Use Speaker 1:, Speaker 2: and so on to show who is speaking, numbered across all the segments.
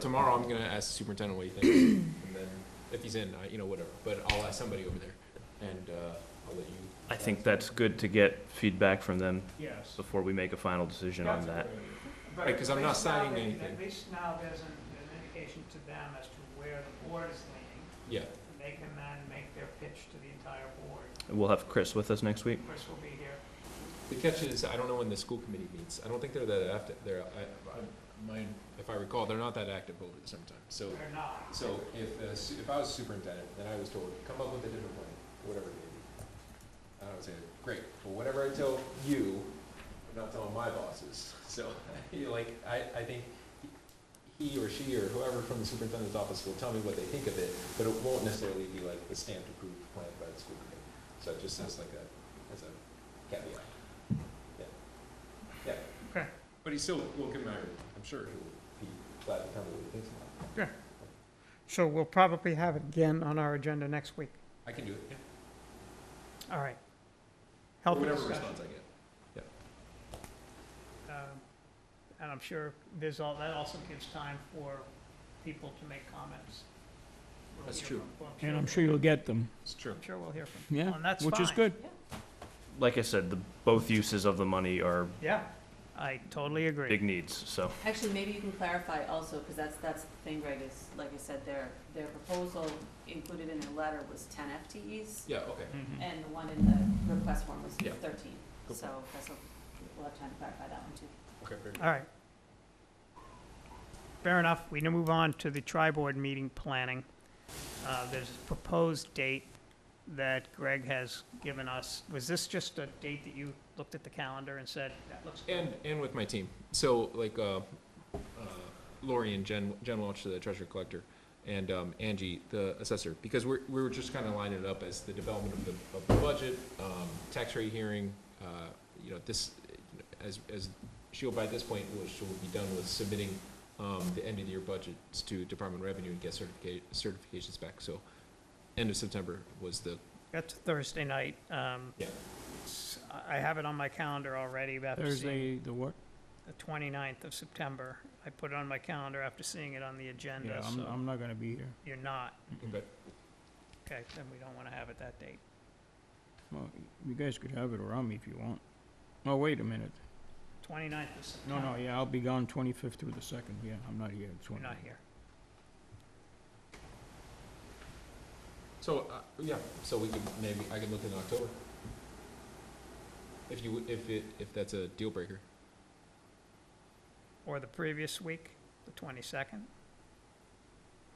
Speaker 1: Tomorrow, I'm gonna ask the superintendent what he thinks, and then if he's in, I, you know, whatever, but I'll ask somebody over there, and, uh, I'll let you.
Speaker 2: I think that's good to get feedback from them
Speaker 3: Yes.
Speaker 2: before we make a final decision on that.
Speaker 3: But
Speaker 1: Right, 'cause I'm not
Speaker 3: at least now
Speaker 1: signing
Speaker 3: they-
Speaker 1: anything.
Speaker 3: At least now there's an, an indication to them as to where the board is leaning.
Speaker 1: Yeah,
Speaker 3: and They can then make their pitch to the entire board.
Speaker 2: We'll have Chris with us next week.
Speaker 3: Chris will be here.
Speaker 1: the catch is, I don't know when the school committee meets, I don't think they're that active, they're, I, I, my, if I recall, they're not that active over the summertime, so.
Speaker 3: They're not.
Speaker 1: So if, uh, su- if I was superintendent, then I was told, come up with a different plan, whatever it may be. And I would say, great, but whatever I tell you, I'm not telling my bosses. So, you know, like, I, I think he or she or whoever from the superintendent's office will tell me what they think of it, but it won't necessarily be like the stamped approved plan by the school committee. So it just sounds like a, as a caveat. Yeah. Yeah.
Speaker 3: Okay.
Speaker 1: But he still will get married. I'm sure he'll be glad to tell me what he thinks about it.
Speaker 3: So we'll probably have it again on our agenda next week.
Speaker 1: I can do it, yeah.
Speaker 3: All right.
Speaker 1: Or
Speaker 3: Healthy
Speaker 1: Whatever
Speaker 3: discussion.
Speaker 1: response I get.
Speaker 3: Um, And I'm sure there's all, that also gives time for people to make comments. We'll
Speaker 1: That's
Speaker 3: hear
Speaker 1: true.
Speaker 3: from- well,
Speaker 4: And I'm sure you'll get them,
Speaker 1: It's true.
Speaker 3: I'm sure we'll hear from.
Speaker 4: yeah,
Speaker 3: And that's
Speaker 4: which is
Speaker 3: fine.
Speaker 4: good.
Speaker 2: Like I said, the, both uses of the money are
Speaker 3: Yeah, I totally agree.
Speaker 2: big needs, so.
Speaker 5: Actually, maybe you can clarify also, because that's, that's the thing, Greg, is, like I said, their, their proposal included in their letter was ten FTEs,
Speaker 1: Yeah, okay.
Speaker 3: Mm-hmm.
Speaker 5: and the one in the request form was
Speaker 1: Yeah.
Speaker 5: thirteen.
Speaker 1: Cool.
Speaker 5: So that's, a- we'll have time to clarify that one too.
Speaker 1: Okay, very good.
Speaker 3: All right. Fair enough. We now move on to the tri-board meeting planning. Uh, There's a proposed date that Greg has given us. Was this just a date that you looked at the calendar and said, that looks good?
Speaker 1: And, and with my team. So like, uh, uh, Lori and Jen, Jen Welch, the treasurer collector, and, um, Angie, the assessor, because we're, we were just kind of lining it up as the development of the, of the budget, um, tax rate hearing, uh, you know, this, as, as she'll by this point, will, she'll be done with submitting, um, the end of the year budgets to Department of Revenue and get certifica- certifications back. So end of September was the,
Speaker 3: That's Thursday night. Um,
Speaker 1: Yeah.
Speaker 3: s- I I have it on my calendar already after seeing
Speaker 4: Thursday, the what?
Speaker 3: the 29th of September. I put it on my calendar after seeing it on the
Speaker 4: Yeah,
Speaker 3: agenda,
Speaker 4: I'm,
Speaker 3: so
Speaker 4: I'm not gonna be here.
Speaker 3: you're not.
Speaker 1: but
Speaker 3: Okay, then we don't want to have it that date.
Speaker 4: Well, you guys could have it around me if you want. Oh, wait a minute.
Speaker 3: 29th of September.
Speaker 4: No, no, yeah, I'll be gone twenty-fifth through the second, yeah, I'm not here.
Speaker 3: You're not here.
Speaker 1: So, uh, yeah, so we could, maybe, I could look in October. If you, would- if it, if that's a deal breaker.
Speaker 3: Or the previous week, the 22nd.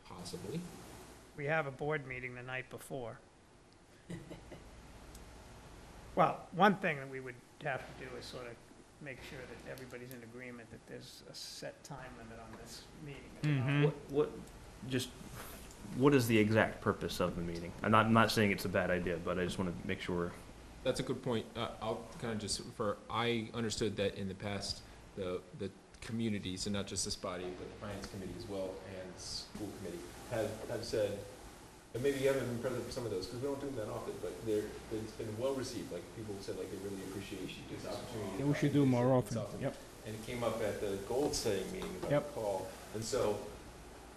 Speaker 1: Possibly.
Speaker 3: We have a board meeting the night before. Well, one thing that we would have to do is sort of make sure that everybody's in agreement that there's a set time limit on this meeting.
Speaker 4: Mhm.
Speaker 2: What, what, just, what is the exact purpose of the meeting? I'm not, I'm not saying it's a bad idea, but I just want to make sure we're
Speaker 1: That's a good point. Uh, I'll kind of just, for, I understood that in the past, the, the communities, and not just this body, but the finance committee as well, and school committee, have, have said, and maybe you haven't been present for some of those, because we don't do them that often, but they're, it's been well received, like, people said, like, they really appreciate this opportunity.
Speaker 4: Yeah, we should do more often,
Speaker 1: It's
Speaker 4: yep.
Speaker 1: and it came up at the gold setting meeting about the
Speaker 4: Yep.
Speaker 1: call. And so,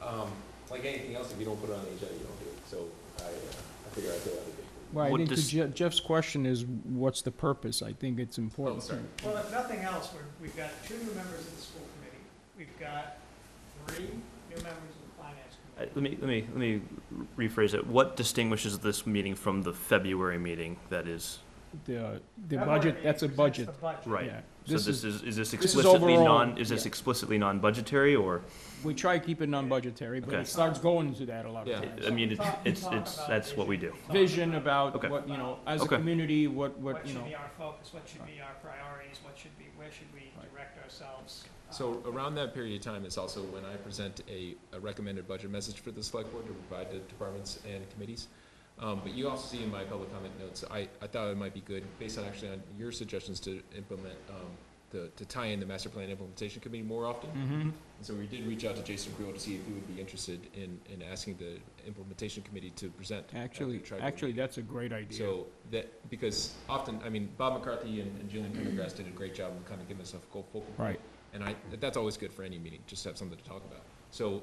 Speaker 1: um, like anything else, if you don't put it on the agenda, you don't do it. So I, uh, I figure I'd go out of it.
Speaker 4: Well, I
Speaker 2: What
Speaker 4: think to
Speaker 2: does-
Speaker 4: Je- Jeff's question is, what's the purpose? I think it's
Speaker 1: Oh,
Speaker 4: important.
Speaker 1: sorry.
Speaker 3: Well, if nothing else, we're, we've got two new members of the school committee. We've got three new members of the finance
Speaker 2: Uh,
Speaker 3: committee.
Speaker 2: Let me, let me, let me rephrase it. What distinguishes this meeting from the February meeting that is?
Speaker 4: The, uh, the
Speaker 3: That board
Speaker 4: budget,
Speaker 3: meeting
Speaker 4: that's a
Speaker 3: presents
Speaker 4: budget,
Speaker 3: the budget.
Speaker 2: Right.
Speaker 4: yeah.
Speaker 2: So this is, is this
Speaker 4: this is
Speaker 2: explicitly
Speaker 4: overall,
Speaker 2: non, is this
Speaker 4: yeah.
Speaker 2: explicitly non-budgetary or?
Speaker 4: We try to keep it non-budgetary, but
Speaker 2: Okay.
Speaker 4: it starts going into that a lot
Speaker 1: Yeah.
Speaker 4: of
Speaker 2: I
Speaker 4: times.
Speaker 2: mean,
Speaker 3: We
Speaker 2: it's,
Speaker 3: talk- we
Speaker 2: it's,
Speaker 3: talk
Speaker 2: it's,
Speaker 3: about
Speaker 2: that's what we do.
Speaker 3: Talk
Speaker 4: Vision
Speaker 3: about-
Speaker 4: about
Speaker 2: Okay.
Speaker 4: what, you know, as a
Speaker 2: Okay.
Speaker 4: community, what, what,
Speaker 3: What
Speaker 4: you know.
Speaker 3: should be our focus, what should be our priorities, what should be, where should we
Speaker 4: Right.
Speaker 3: direct ourselves? uh,
Speaker 1: So around that period of time is also when I present a, a recommended budget message for the select board to provide to departments and committees. Um, but you also see in my public comment notes, I, I thought it might be good, based on actually on your suggestions to implement, um, the, to tie in the master plan implementation committee more often.
Speaker 4: Mm-hmm.
Speaker 1: And so we did reach out to Jason Creel to see if he would be interested in, in asking the implementation committee to present. at the
Speaker 4: Actually,
Speaker 1: tri-board
Speaker 4: actually,
Speaker 1: meeting.
Speaker 4: that's a great idea.
Speaker 1: So that, because often, I mean, Bob McCarthy and and Julian Pendergrass did a great job of kind of giving us a focal. point.
Speaker 4: Right.
Speaker 1: And I, that's always good for any meeting, just to have something to talk about. So